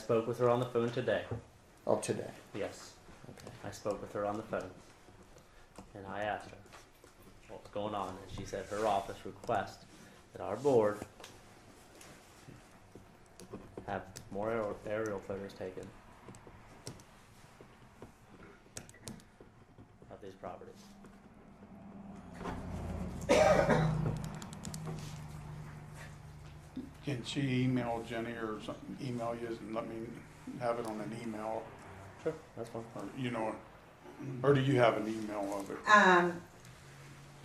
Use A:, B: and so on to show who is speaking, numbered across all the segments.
A: spoke with her on the phone today.
B: Oh, today.
A: Yes.
B: Okay.
A: I spoke with her on the phone. And I asked her what's going on. And she said her office requests that our board have more aerial, aerial photos taken of these properties.
C: Can she email Jenny or something, email you and let me have it on an email
A: Sure, that's fine.
C: or, you know, or do you have an email of it?
D: Um,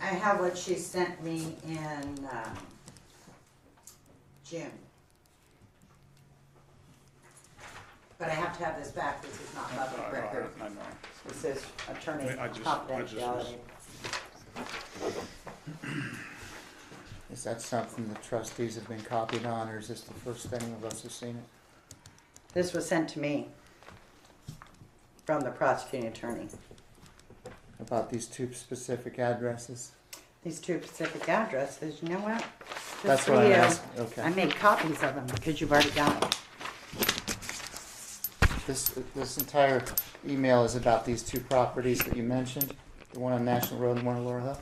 D: I have what she sent me in, um, June. But I have to have this back, this is not public
C: I- I-
D: record.
C: I know.
D: It says attorney
C: I just- I just was-
D: confidentiality.
B: Is that something the trustees have been copied on, or is this the first thing of us have seen it?
D: This was sent to me from the prosecuting attorney.
B: About these two specific addresses?
D: These two specific addresses, you know what? Just
B: That's
D: for
B: what I
D: you.
B: asked,
D: I
B: okay.
D: made copies of them because you've already got them.
B: This, this entire email is about these two properties that you mentioned, the one on National Road and one on Laurel Hill?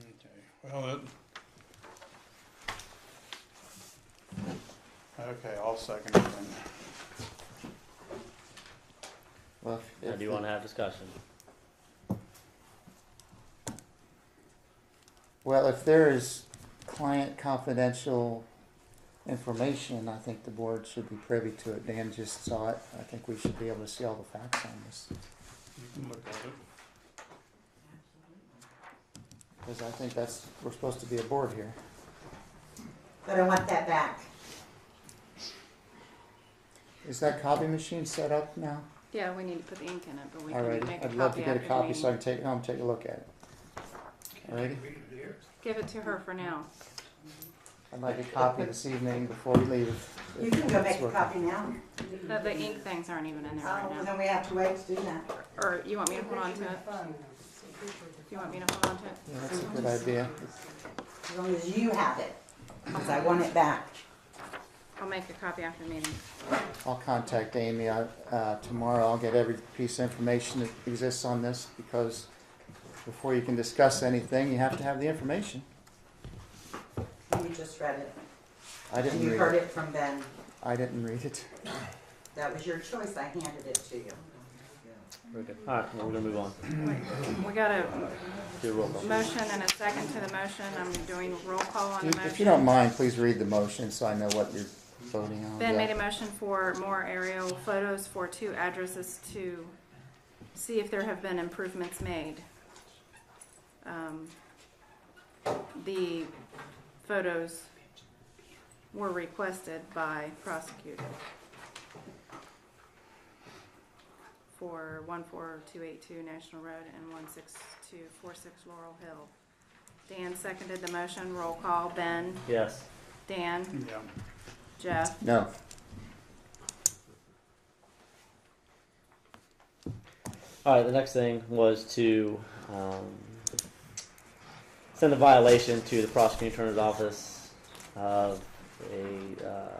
C: Okay, well, it. Okay, I'll second it then.
B: Well, if-
A: Now,
B: if
A: do you
B: the-
A: want to have discussion?
B: Well, if there is client confidential information, I think the board should be privy to it. Dan just saw it. I think we should be able to see all the facts on this.
C: You can look at it.
B: Because I think that's, we're supposed to be a board here.
D: But I want that back.
B: Is that copy machine set up now?
E: Yeah, we need to put the ink in it, but we
B: All
E: can
B: righty.
E: make a
B: I'd love to
E: copy
B: get a
E: after the
B: copy so I
E: meeting.
B: can take it home, take a look at it. All righty.
E: Give it to her for now.
B: I'd like a copy this evening before we leave. if-
D: You
B: if
D: can go
B: it's
D: make a
B: working.
D: copy now.
E: The, the ink things aren't even in there
D: Oh,
E: right now.
D: then we have to wait to do that.
E: Or you want me to hold on to it? You want me to hold on to it?
B: Yeah, that's a good idea.
D: As long as you have it, because I want it back.
E: I'll make a copy after the meeting.
B: I'll contact Amy uh, uh, tomorrow. I'll get every piece of information that exists on this because before you can discuss anything, you have to have the information.
D: You just read it.
B: I
D: And
B: didn't
D: you
B: read
D: heard
B: it.
D: it from Ben.
B: I didn't read it.
D: That was your choice. I handed it to you.
A: Very good. All right, well, we're going to move on.
E: We got a
A: Do a roll call.
E: motion and a second to the motion. I'm doing roll call on the
B: If you don't
E: motion.
B: mind, please read the motion so I know what you're voting on.
E: Ben
B: Yeah.
E: made a motion for more aerial photos for two addresses to see if there have been improvements made. Um, The photos were requested by prosecutor for one four two eight two National Road and one six two four six Laurel Hill. Dan seconded the motion. Roll call. Ben,
A: Yes.
E: Dan,
C: Yeah,
E: Jeff.
B: No,
A: All right, the next thing was to um, send a violation to the prosecuting attorney's office of a. Uh,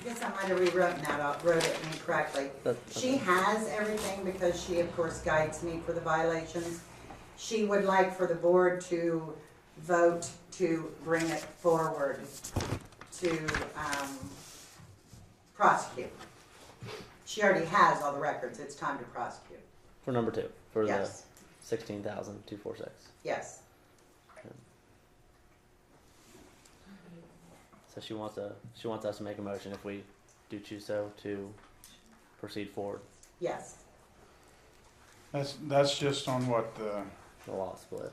D: I guess I might have rewritten that out, wrote it incorrectly.
A: that-
D: She has everything because she, of course, guides me for the violations. She would like for the board to vote to bring it forward to um, prosecute. She already has all the records. It's time to prosecute.
A: for number two for
D: Yes,
A: the sixteen thousand two four six.
D: yes.
A: So she wants a she wants us to make a motion if we do choose so to proceed forward
D: Yes,
C: that's, that's just on what the,
A: the law split.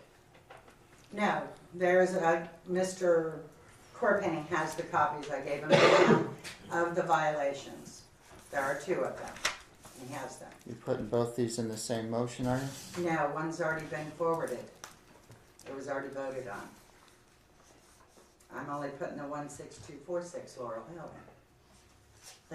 D: no, there's a, Mr. Corpenny has the copies I gave him right now of the violations. There are two of them, and he has them.
B: you're putting both these in the same motion, are you?
D: No, one's already been forwarded. It was already voted on. I'm only putting the one six two four six Laurel Hill.